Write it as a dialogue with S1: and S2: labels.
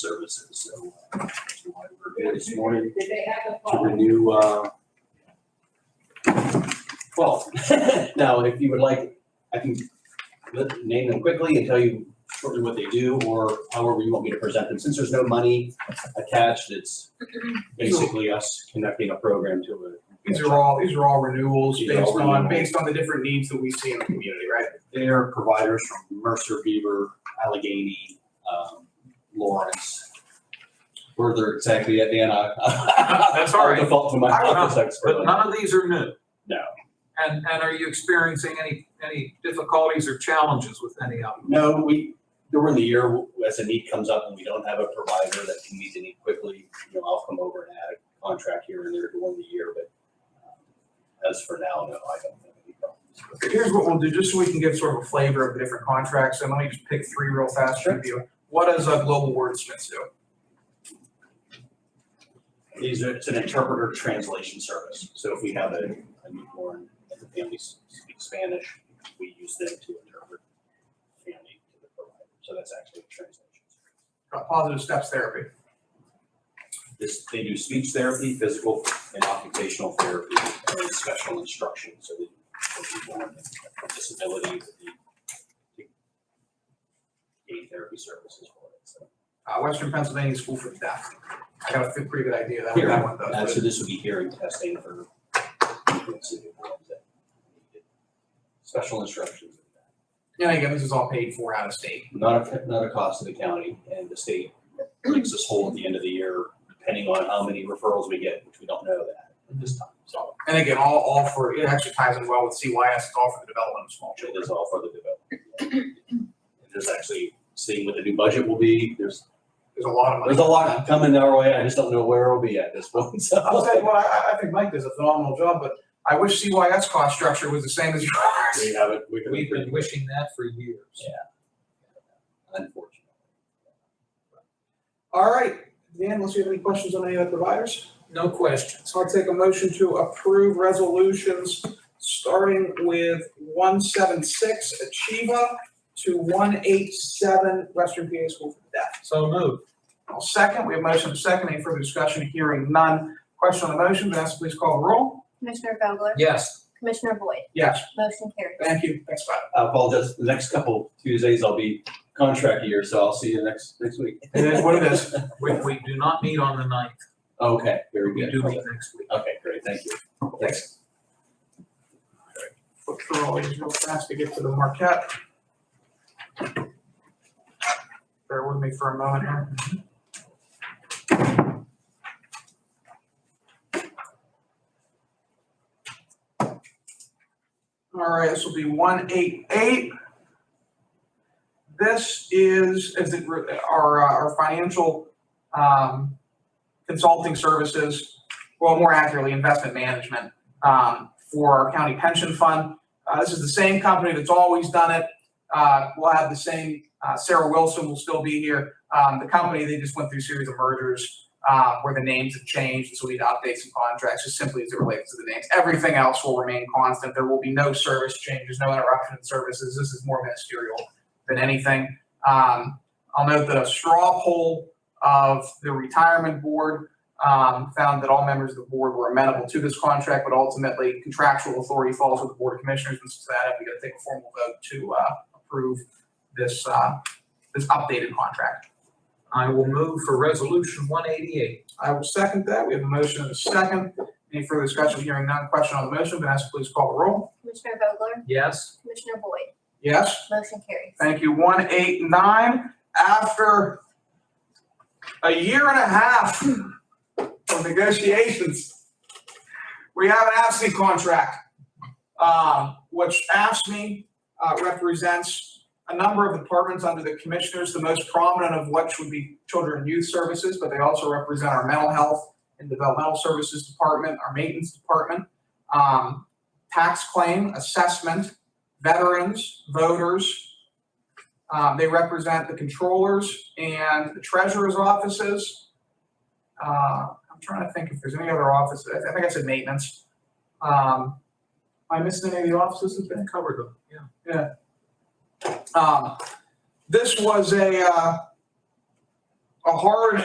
S1: services, so uh, that's why we're here this morning
S2: Did they have the
S1: to
S2: phone?
S1: renew, uh, well, now, if you would like, I can let- name them quickly and tell you shortly what they do, or however you want me to present them, since there's no money attached, it's basically us conducting a program to
S3: These are all, these are all renewals
S1: These are all
S3: based on,
S1: renewals.
S3: based on the different needs that we see in the community, right?
S1: a, they are providers from Mercer, Beaver, Allegheny, um, Lawrence. Where they're exactly at, Dan, I.
S4: Ah, That's all right.
S1: I'll Default to my
S4: I don't know,
S1: office expert.
S4: But none of these are new.
S1: No.
S4: And, and are you experiencing any, any difficulties or challenges with any of them?
S1: No, we, during the year, as a need comes up and we don't have a provider that can meet the need quickly, you know, I'll come over and add a contract here and there during the year, but uh, as for now, no, I don't have any problems.
S3: Here's what we'll do, just so we can give sort of a flavor of the different contracts, and let me just pick three real fast to review. What does uh, Global Wordsmiths do?
S1: These are, it's an interpreter translation service, so if we have a, a newborn and the family s- speaks Spanish, we use them to interpret family to the provider, so that's actually a translation.
S3: Uh, Positive Steps Therapy.
S1: This, they do speech therapy, physical and occupational therapy, and special instruction, so that for people with disabilities, that they gain therapy services for it, so.
S3: Uh, Western Pennsylvania School for the Deaf. I got a fe- pretty good idea that what that one
S1: Uh,
S3: does.
S1: so this would be hearing testing for people with severe hearing that need special instructions.
S3: but- And again, this is all paid for out of state.
S1: Not a, not a cost to the county and the state makes us whole at the end of the year, depending on how many referrals we get, which we don't know that at this time, so.
S3: And again, all, all for, it actually ties in well with CYS, it's all for the development of small
S1: It
S3: children.
S1: is all for the development. And Just actually seeing what the new budget will be, there's,
S3: There's a lot of money.
S1: there's a lot coming our way, I just don't know where it'll be at this point, so.
S3: I'll tell you what, I- I, I think Mike does a phenomenal job, but I wish CYS cost structure was the same as yours.
S1: We haven't, we
S4: We've been wishing that for years.
S1: Unfortunately.
S3: All right, Dan, unless you have any questions on any of the providers,
S4: No question.
S3: so I'll take a motion to approve resolutions, starting with one seven six Achieva to one eight seven Western PA School for the Deaf.
S4: So moved.
S3: I'll second, we have motion and second, any further discussion, hearing none. Question on the motion, Vanessa, please call the roll.
S5: Commissioner Vogler?
S4: Yes.
S5: Commissioner Boyd?
S3: Yes,
S5: Motion carries.
S3: thank you, thanks, bye.
S1: I apologize, the next couple Tuesdays I'll be contract year, so I'll see you next, next week.
S3: It is what it is.
S4: We, we do not meet on the ninth.
S1: Okay, very
S4: We
S1: good.
S4: do meet next week.
S1: Okay, great, thank you. Thanks.
S3: Look through all these real fast to get to the Marquette. Bear with me for a moment here. All right, this will be one eight eight. This is, is it, re- our, uh, our financial, um, consulting services, well, more accurately, investment management, um, for our county pension fund. Uh, this is the same company that's always done it. Uh, we'll have the same, uh, Sarah Wilson will still be here. Um, the company, they just went through a series of mergers, uh, where the names have changed, and so we need to update some contracts, just simply as it relates to the names. Everything else will remain constant. There will be no service changes, no interruption in services. This is more ministerial than anything. Um, I'll note that a straw poll of the retirement board, um, found that all members of the board were amenable to this contract, but ultimately contractual authority falls with the Board of Commissioners, and since that, we gotta take a formal vote to, uh, approve this, uh, this updated contract.
S4: I will move for resolution one eighty-eight.
S3: I will second that. We have a motion and a second. Any further discussion? Hearing none. Question on the motion. Vanessa, please call the roll.
S5: Commissioner Vogler?
S4: Yes.
S5: Commissioner Boyd?
S3: Yes.
S5: Motion carries.
S3: Thank you. One, eight, nine. After a year and a half of negotiations, we have an AFSMI contract, um, which AFSMI uh, represents a number of departments under the commissioners, the most prominent of which would be Children and Youth Services, but they also represent our Mental Health and Developmental Services Department, our Maintenance Department, um, Tax Claim, Assessment, Veterans, Voters, um, they represent the controllers and the treasurer's offices. Uh, I'm trying to think if there's any other offices. I think I said maintenance. Um, am I missing any of the offices that's been covered?
S4: Covered them, yeah.
S3: Um, this was a, uh, a hard